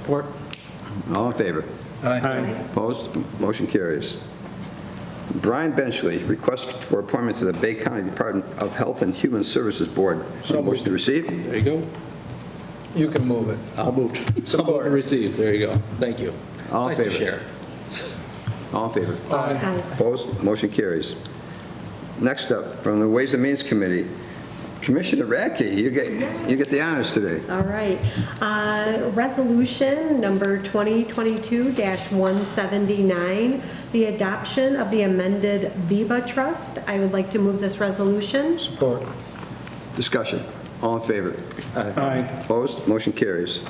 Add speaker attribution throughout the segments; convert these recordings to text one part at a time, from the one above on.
Speaker 1: Support.
Speaker 2: All in favor?
Speaker 1: Aye.
Speaker 2: Opposed? Motion carries. Brian Benchley, request for appointment to the Bay County Department of Health and Human Services Board.
Speaker 3: So
Speaker 2: Motion to receive?
Speaker 3: There you go.
Speaker 4: You can move it.
Speaker 3: I'll move. to-
Speaker 4: Support.
Speaker 3: Receive, there you go. Thank you.
Speaker 2: All
Speaker 3: Nice
Speaker 2: in
Speaker 3: to
Speaker 2: favor?
Speaker 3: share.
Speaker 2: All in favor?
Speaker 4: Aye.
Speaker 2: Opposed? Motion carries. Next up, from the Ways and Means Committee, Commissioner Radke, you get, you get the honors today.
Speaker 5: All right. Uh, Resolution number 2022-179, the adoption of the amended Viva Trust. I would like to move this resolution.
Speaker 4: Support.
Speaker 2: Discussion. All in favor?
Speaker 1: Aye.
Speaker 2: Opposed? Motion carries.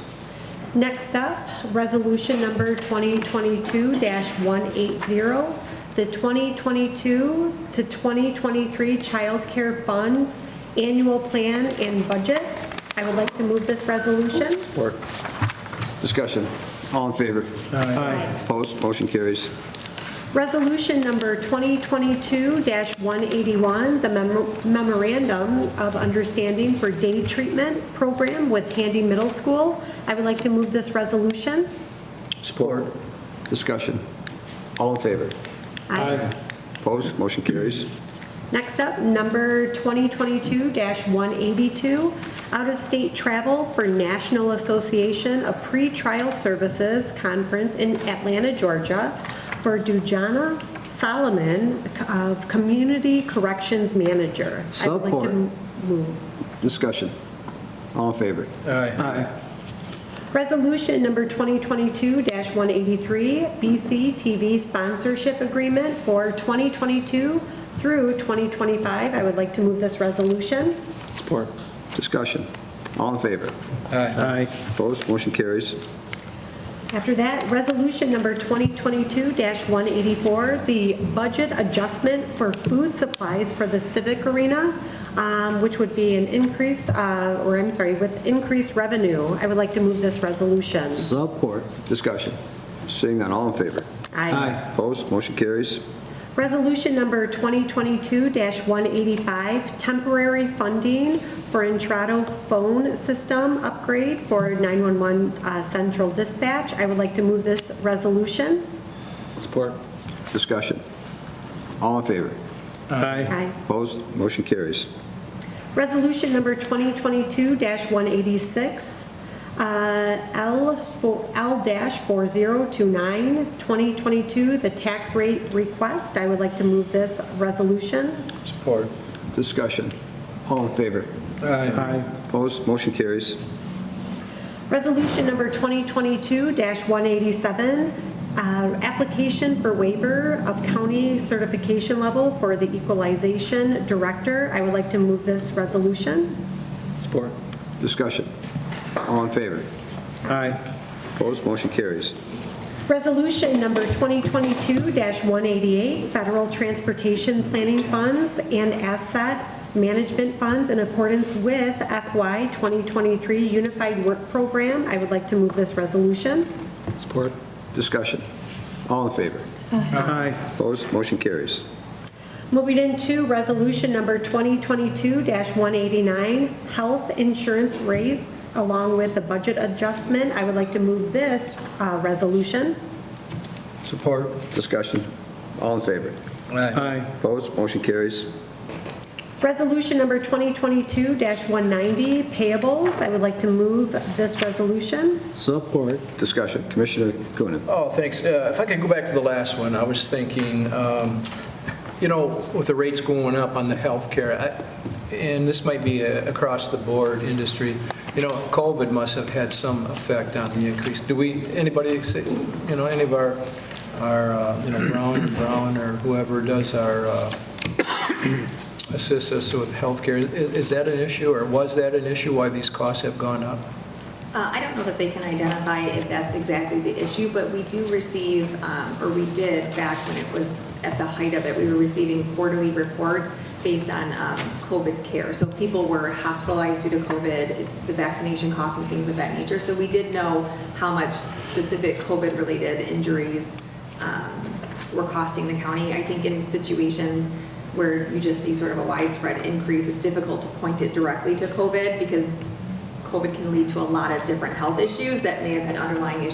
Speaker 5: Next up, resolution number 2022-180, the 2022 to 2023 Child Care Fund Annual Plan and Budget. I would like to move this resolution.
Speaker 4: Support.
Speaker 2: Discussion. All in favor?
Speaker 1: Aye.
Speaker 2: Opposed? Motion carries.
Speaker 5: Resolution number 2022-181, the memo- memorandum of understanding for day treatment program with Handy Middle School. I would like to move this resolution.
Speaker 4: Support.
Speaker 2: Discussion. All in favor?
Speaker 4: Aye.
Speaker 2: Opposed? Motion carries.
Speaker 5: Next up, number 2022-182, out-of-state travel for National Association of Pretrial Services Conference in Atlanta, Georgia, for Dujana Solomon of Community Corrections Manager. I would like
Speaker 2: Support.
Speaker 5: to m- move.
Speaker 2: Discussion. All in favor?
Speaker 4: Aye.
Speaker 5: Resolution number 2022-183, BC TV sponsorship agreement for 2022 through 2025. I would like to move this resolution.
Speaker 4: Support.
Speaker 2: Discussion. All in favor?
Speaker 4: Aye.
Speaker 1: Aye.
Speaker 2: Opposed? Motion carries.
Speaker 5: After that, resolution number 2022-184, the budget adjustment for food supplies for the civic arena, um, which would be an increased, uh, or I'm sorry, with increased revenue. I would like to move this resolution.
Speaker 4: Support.
Speaker 2: Discussion. Seeing none, all in favor?
Speaker 5: Aye.
Speaker 2: Opposed? Motion carries.
Speaker 5: Resolution number 2022-185, temporary funding for Entrado phone system upgrade for 911 uh, central dispatch. I would like to move this resolution.
Speaker 4: Support.
Speaker 2: Discussion. All in favor?
Speaker 1: Aye.
Speaker 5: Aye.
Speaker 2: Opposed? Motion carries.
Speaker 5: Resolution number 2022-186, uh, L for- L-4029, 2022, the tax rate request. I would like to move this resolution.
Speaker 4: Support.
Speaker 2: Discussion. All in favor?
Speaker 4: Aye.
Speaker 1: Aye.
Speaker 2: Opposed? Motion carries.
Speaker 5: Resolution number 2022-187, uh, application for waiver of county certification level for the equalization director. I would like to move this resolution.
Speaker 4: Support.
Speaker 2: Discussion. All in favor?
Speaker 1: Aye.
Speaker 2: Opposed? Motion carries.
Speaker 5: Resolution number 2022-188, federal transportation planning funds and asset management funds in accordance with FY 2023 Unified Work Program. I would like to move this resolution.
Speaker 4: Support.
Speaker 2: Discussion. All in favor?
Speaker 1: Aye.
Speaker 2: Opposed? Motion carries.
Speaker 5: Moving into resolution number 2022-189, health insurance rates along with the budget adjustment. I would like to move this uh, resolution.
Speaker 4: Support.
Speaker 2: Discussion. All in favor?
Speaker 4: Aye.
Speaker 1: Aye.
Speaker 2: Opposed? Motion carries.
Speaker 5: Resolution number 2022-190, payables. I would like to move this resolution.
Speaker 4: Support.
Speaker 2: Discussion. Commissioner Coonan.
Speaker 4: Oh, thanks. Uh, If I could go back to the last one, I was thinking, um, you know, with the rates going up on the healthcare, I- and this might be a- across the board industry, you know, COVID must have had some effect on the increase. Do we, anybody, say- you know, any of our, our, uh, you know, Brown and Brown or whoever does our, uh, assists us with healthcare, i- is that an issue or was that an issue why these costs have gone up?
Speaker 6: Uh, I don't know that they can identify if that's exactly the issue, but we do receive, um, or we did back when it was at the height of it, we were receiving quarterly reports based on um, COVID care. So if people were hospitalized due to COVID, the vaccination costs and things of that nature. So we did know how much specific COVID-related injuries um, were costing the county. I think in situations where you just see sort of a widespread increase, it's difficult to point it directly to COVID because COVID can lead to a lot of different health issues that may have been underlying issues.